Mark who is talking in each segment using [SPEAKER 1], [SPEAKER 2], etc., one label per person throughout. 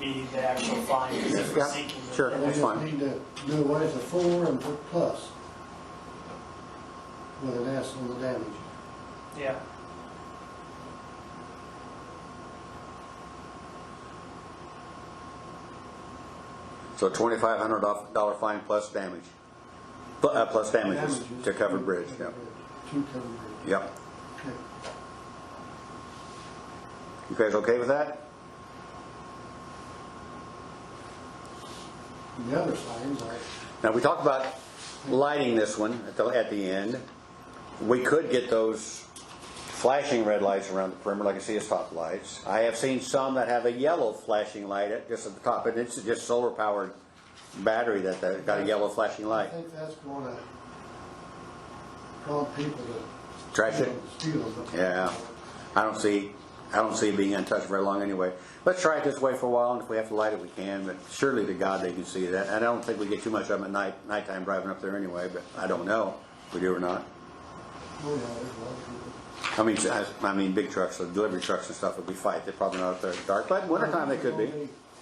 [SPEAKER 1] be the actual findings that we're
[SPEAKER 2] Yeah,
[SPEAKER 1] seeking.
[SPEAKER 2] sure.
[SPEAKER 3] And we
[SPEAKER 2] That's
[SPEAKER 3] just
[SPEAKER 2] fine.
[SPEAKER 3] need to do away with the four and put plus with an S on the damage.
[SPEAKER 1] Yeah.
[SPEAKER 2] So twenty-five hundred dollar fine plus damage, Pl- uh, plus damages to covered bridge, yeah.
[SPEAKER 3] To covered bridge,
[SPEAKER 2] Yep.
[SPEAKER 3] okay.
[SPEAKER 2] You guys okay with that?
[SPEAKER 3] And The other signs, I,
[SPEAKER 2] Now, we talked about lighting this one at the, at the end. We could get those flashing red lights around the perimeter, like I see as top lights. I have seen some that have a yellow flashing light at, just at the top, and it's just solar powered battery that, that got a yellow flashing
[SPEAKER 3] I
[SPEAKER 2] light.
[SPEAKER 3] think that's gonna cause people to.
[SPEAKER 2] Trash it?
[SPEAKER 3] Steal them.
[SPEAKER 2] Yeah, I don't see, I don't see it being untouched very long anyway. Let's try it this way for a while, and if we have to light it, we can, but surely to God they can see that. And I don't think we get too much of them at night, nighttime driving up there anyway, but I don't know if we do or not.
[SPEAKER 3] Oh, yeah, there's a lot of people.
[SPEAKER 2] I mean, I, I mean, big trucks, the delivery trucks and stuff, if we fight, they're probably not up there at dark, but wintertime they could be.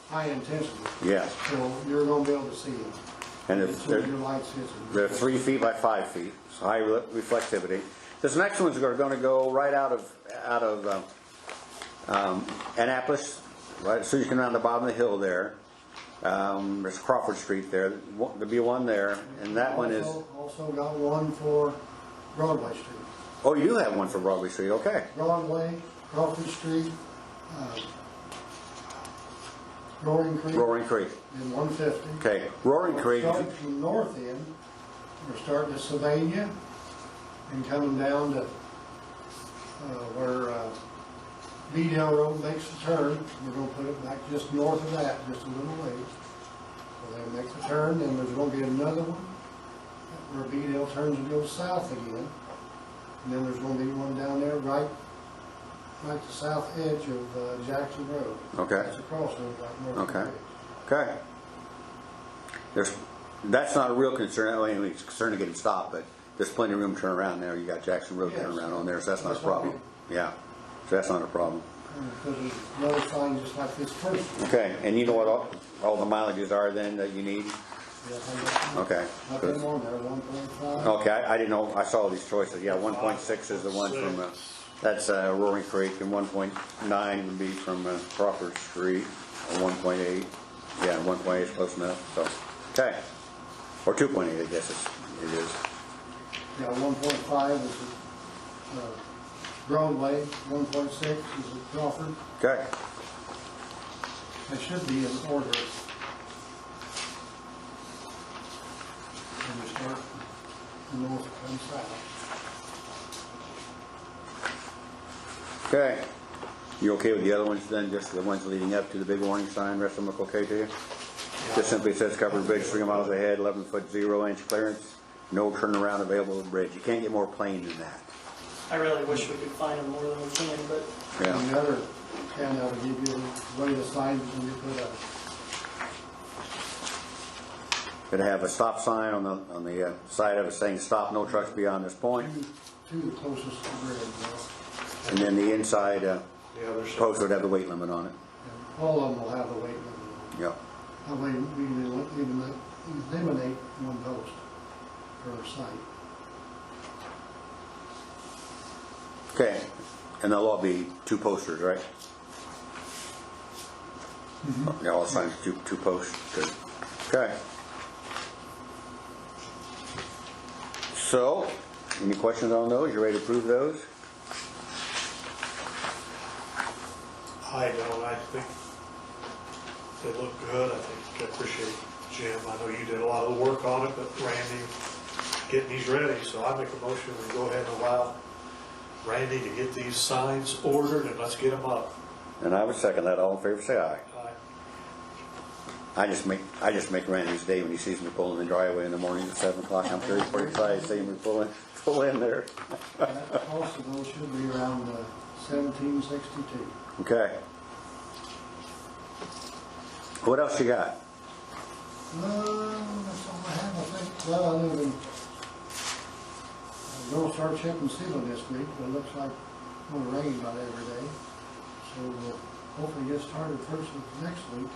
[SPEAKER 3] High intensity.
[SPEAKER 2] Yeah.
[SPEAKER 3] So you're gonna be able to see them.
[SPEAKER 2] And if
[SPEAKER 3] So
[SPEAKER 2] they're,
[SPEAKER 3] your lights hits them.
[SPEAKER 2] they're three feet by five feet, so high re- reflectivity. This next one's gonna, gonna go right out of, out of, um, um, Annapolis, right, as soon as you come down the bottom of the hill there. Um, there's Crawford Street there, One- there'll be one there, and that one is,
[SPEAKER 3] Also- Also got one for Broadway Street.
[SPEAKER 2] oh, you do have one for Broadway Street, okay.
[SPEAKER 3] Broadway, Crawford Street, uh, Roaring Creek,
[SPEAKER 2] Roaring Creek,
[SPEAKER 3] and 150.
[SPEAKER 2] okay, Roaring Creek,
[SPEAKER 3] Starting from north end, we're starting to Sylvania and coming down to uh, where uh, Beadle Road makes the turn. We're going to put it back just north of that, just a little ways. So they make the turn, and there's going to be another one where Beadle turns and goes south again. And then there's going to be one down there right, right to south edge of uh, Jackson Road.
[SPEAKER 2] Okay.
[SPEAKER 3] It's a crossroad right north of the
[SPEAKER 2] Okay,
[SPEAKER 3] bridge.
[SPEAKER 2] okay. There's, that's not a real concern, I mean, it's a concern to get him stopped, but there's plenty of room to turn around there, you got Jackson Road turn around on there, so that's not a problem. Yeah, so that's not a problem.
[SPEAKER 3] Because there's another sign just like this first.
[SPEAKER 2] Okay, and you know what all, all the mileages are then that you need? Okay.
[SPEAKER 3] Nothing on there, one point five.
[SPEAKER 2] Okay, I, I didn't know, I saw these choices, yeah, one point six is the one from, uh, that's uh, Roaring Creek, and one point nine would be from uh, Crawford Street, or one point eight, yeah, one point eight is close enough, so, okay. Or two point eight, I guess it's, it is.
[SPEAKER 3] Yeah, one point five is uh, Broadway, one point six is at Crawford.
[SPEAKER 2] Okay,
[SPEAKER 3] They should be in order. And we start from north and south.
[SPEAKER 2] okay. You okay with the other ones then, just the ones leading up to the big warning sign, rest of them look okay to you? Just simply says covered bridge three miles ahead, eleven foot zero inch clearance, no turnaround available at the bridge, you can't get more plain than that.
[SPEAKER 1] I really wish we could find them more than we can, but
[SPEAKER 2] Yeah,
[SPEAKER 3] And the other handout will give you one of the signs when you put up.
[SPEAKER 2] it'd have a stop sign on the, on the uh, side of it saying, stop, no trucks beyond this point,
[SPEAKER 3] Two, two the closest to the bridge. you know.
[SPEAKER 2] and then the inside, uh,
[SPEAKER 4] The other
[SPEAKER 2] post would have the weight limit on it,
[SPEAKER 3] And All of them will have the weight limit.
[SPEAKER 2] yeah.
[SPEAKER 3] That way we can el- eliminate eliminate one post per site.
[SPEAKER 2] Okay, and they'll all be two posters, right? Yeah, all signed two, two posts, good. Okay. So, any questions on those? You ready to approve those?
[SPEAKER 4] I don't, I think they look good, I think, I appreciate Jim, I know you did a lot of the work on it, but Randy, getting these ready, so I make a motion to go ahead and allow Randy to get these signs ordered and let's get them up.
[SPEAKER 2] And I would second that, all in favor, say aye.
[SPEAKER 4] I-
[SPEAKER 2] I just make, I just make Randy's day when he sees me pulling in the driveway in the morning at seven o'clock, I'm thirty, forty-five, seeing me pulling, pull in there.
[SPEAKER 3] That cost of those should be around uh, seventeen sixty-two.
[SPEAKER 2] Okay. What else you got?
[SPEAKER 3] Um, that's all I have, I think, well, other than, I'm gonna start checking sealing this week, but it looks like it's gonna rain about every day. So we'll hopefully get started first of next week.